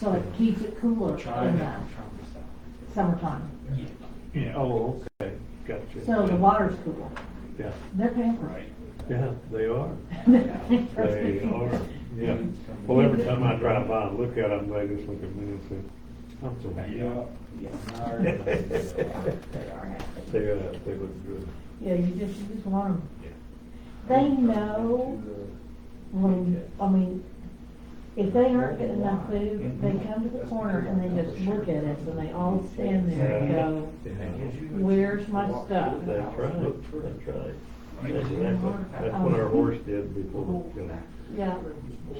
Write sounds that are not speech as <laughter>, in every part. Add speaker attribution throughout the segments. Speaker 1: so it keeps it cooler in the
Speaker 2: China.
Speaker 1: summertime.
Speaker 3: Yeah,
Speaker 2: Oh, okay, gotcha.
Speaker 1: So the water's cool.
Speaker 2: Yeah,
Speaker 1: They're pampered.
Speaker 3: right.
Speaker 2: yeah, they are,
Speaker 1: <laughs>
Speaker 2: they are,
Speaker 1: They
Speaker 2: yeah. Well, every time I drive by and look at them, they just look at me and say, I'm so happy.
Speaker 3: Yeah.
Speaker 1: are happy.
Speaker 2: They, uh, they look good.
Speaker 1: Yeah, you just, you just want them. They know when, I mean, if they aren't getting enough food, they come to the corner and they just look at us and they all stand there and go, where's my stuff?
Speaker 2: That's right, that's right. That's exactly, that's what our horse did before, you know.
Speaker 1: Yeah,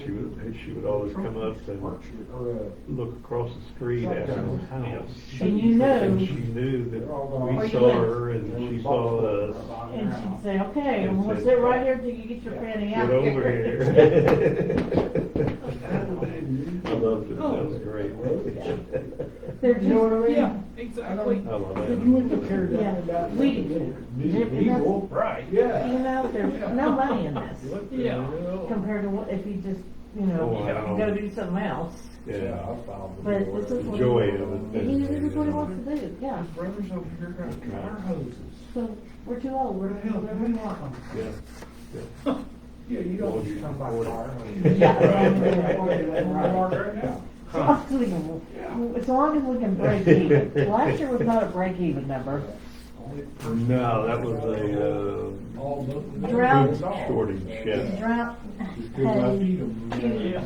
Speaker 2: She would, she would always come up and look across the street at her house.
Speaker 1: and you know,
Speaker 2: And she knew that
Speaker 1: Where
Speaker 2: we
Speaker 1: you
Speaker 2: saw
Speaker 1: at?
Speaker 2: her and she saw us.
Speaker 1: and she'd say, okay, I'm gonna sit right here till you get your fanny out
Speaker 2: Get
Speaker 1: here. <laughs>
Speaker 2: over here. I loved it, that was great.
Speaker 1: They're just,
Speaker 4: Yeah,
Speaker 1: yeah,
Speaker 4: exactly.
Speaker 2: I love that.
Speaker 1: yeah, we do. And that's-
Speaker 3: Right.
Speaker 1: You know, there's no money in this
Speaker 4: Yeah.
Speaker 1: compared to what, if you just, you
Speaker 2: Oh,
Speaker 1: know,
Speaker 2: wow.
Speaker 1: go do something else.
Speaker 2: Yeah.
Speaker 1: But this is what.
Speaker 2: The joy of it.
Speaker 1: He, this is what he wants to do, yeah.
Speaker 3: Brothers over here got fire hoses.
Speaker 1: So we're too old, we're,
Speaker 3: Where the hell did
Speaker 1: we're,
Speaker 3: we
Speaker 1: we
Speaker 3: want
Speaker 1: want.
Speaker 3: them?
Speaker 2: Yeah.
Speaker 3: Yeah, you
Speaker 2: don't
Speaker 3: don't
Speaker 2: want to
Speaker 3: come
Speaker 2: come
Speaker 3: by
Speaker 2: by
Speaker 3: fire.
Speaker 2: fire
Speaker 1: <laughs> It's unbelievable. As long as we can break even. Last year was not a break even number.
Speaker 2: No, that was a, uh,
Speaker 1: Drought.
Speaker 2: shortage, yeah,
Speaker 1: Drought, hay,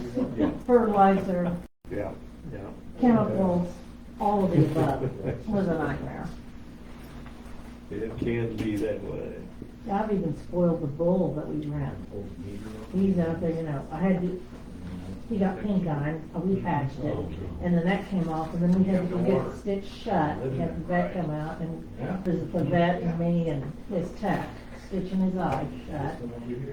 Speaker 1: fertilizer,
Speaker 2: yeah, yeah.
Speaker 1: chemicals, all of the above was a nightmare.
Speaker 2: It can be that way.
Speaker 1: I've even spoiled the bull that we ran. He's out there, you know, I had to, he got pink eye, and we patched it, and then that came off, and then we had to go get it stitched shut, and have the vet come out, and it was the vet and me and his tech stitching his eye shut.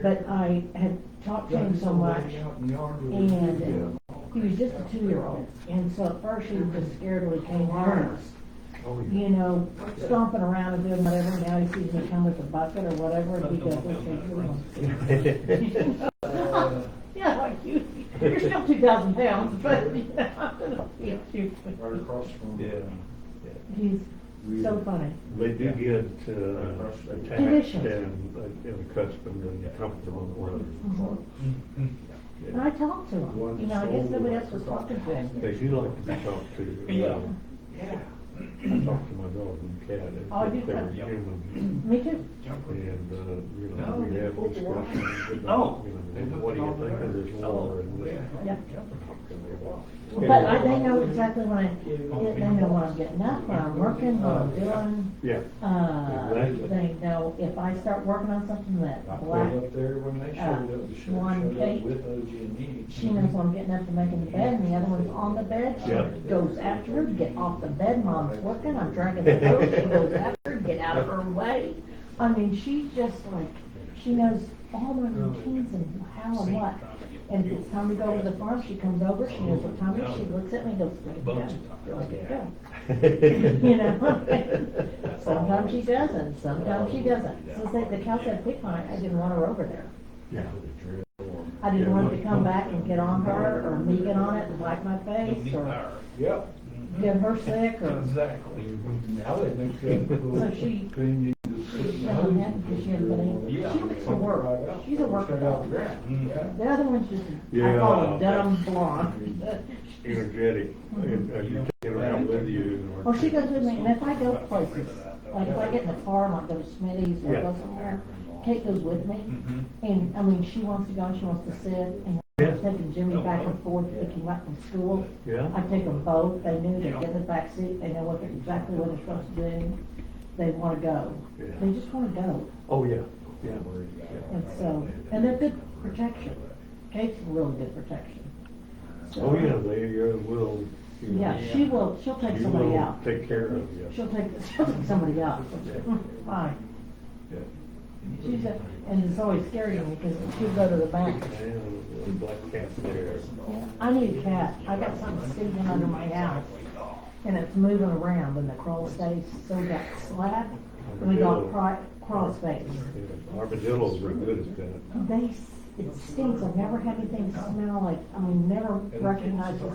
Speaker 1: But I had talked to him so much, and he was just a two-year-old, and so at first he was just scared when he came home
Speaker 2: Oh,
Speaker 1: you know, stomping around and doing whatever, now he sees me come with a bucket or whatever, and he goes, okay,
Speaker 2: yeah.
Speaker 1: you know. Yeah, like you, you're still two thousand pounds, but, you know, I'm gonna beat you.
Speaker 3: Right across from.
Speaker 2: <laughs> Yeah.
Speaker 1: He's so funny.
Speaker 2: They do get uh, attached
Speaker 1: Conditions.
Speaker 2: and uh, and accustomed and comfortable with one another.
Speaker 1: Mhm. And I talked to him, you know, I guess nobody else was talking to him.
Speaker 2: They do like to be talked to.
Speaker 3: Yeah.
Speaker 2: Yeah. I talked to my dog and cat,
Speaker 1: Oh,
Speaker 2: and
Speaker 1: you
Speaker 2: they were
Speaker 1: have-
Speaker 2: human,
Speaker 1: Me too.
Speaker 2: and, uh, you
Speaker 3: No,
Speaker 2: know, we
Speaker 3: they
Speaker 2: have
Speaker 3: put the water-
Speaker 2: discussions
Speaker 3: Oh.
Speaker 2: about, you know, and what do you think of this water and this.
Speaker 1: Yeah.
Speaker 2: and they walk.
Speaker 1: But I, they know exactly when I, they know what I'm getting up, when I'm working, what I'm doing.
Speaker 2: Yeah,
Speaker 1: Uh,
Speaker 2: Exactly.
Speaker 1: they know if I start working on something
Speaker 3: I
Speaker 1: that
Speaker 3: pulled
Speaker 1: black uh,
Speaker 3: up there when they showed up, the sheriff showed up with OG and E.
Speaker 1: She knows I'm getting up and making the bed, and the other one's on the bed. She
Speaker 2: Yeah.
Speaker 1: goes after her, get off the bed, mom's working, I'm dragging the coat. She goes after her, get out of her way. I mean, she's just like, she knows all my routines and how and what. And if it's time to go over to the farm, she comes over, she knows what time it is, she looks at me, and goes, look at go, look at go. <laughs> You know? <laughs> Sometimes she doesn't, sometimes she doesn't. So say the cow said, pick mine, I didn't want her over there.
Speaker 2: yeah.
Speaker 1: I didn't want it to come back and get on her, or me get on it and wipe my face, or
Speaker 3: Yep.
Speaker 1: get her sick, or,
Speaker 3: Exactly. Now they make that little
Speaker 1: so she,
Speaker 3: thing you
Speaker 1: she's done that, because she hasn't been able, she likes to work, she's a worker dog. The other one's just, I call her
Speaker 2: Yeah.
Speaker 1: dumb blonde.
Speaker 2: Energetic, and, uh, you take it around with you.
Speaker 1: Well, Oh, she goes with me, and if I go places, like if I get in the car and I go to Smitty's or go somewhere, Kate goes with me,
Speaker 2: Mm-hmm.
Speaker 1: and, I mean, she wants to go, and she wants to sit, and I'm taking Jimmy back and forth, picking him up from school.
Speaker 2: Yeah.
Speaker 1: I take them both, they knew they'd get in the backseat, they know what, exactly what they're supposed to do, they wanna go.
Speaker 2: Yeah.
Speaker 1: They just wanna go,
Speaker 2: Oh, yeah, yeah.
Speaker 1: and so, and they're good protection. Kate's really good protection. So-
Speaker 2: Oh, yeah, they uh, will. you know,
Speaker 1: Yeah, she will, she'll take
Speaker 2: you
Speaker 1: somebody
Speaker 2: will
Speaker 1: out,
Speaker 2: Take care of you.
Speaker 1: she'll take, she'll take somebody out, <laughs> fine.
Speaker 2: Yeah.
Speaker 1: She's a, and it's always scary to me, because she'll go to the bank.
Speaker 2: And the black cat there.
Speaker 1: I need a cat, I got something sticking under my house, and it's moving around, and the crawl space, so we got slab, and we got crawl, crawl space.
Speaker 2: Yeah, Armadillos are good at that.
Speaker 1: They, s- it stinks, I've never had anything smell like, I mean, never recognized this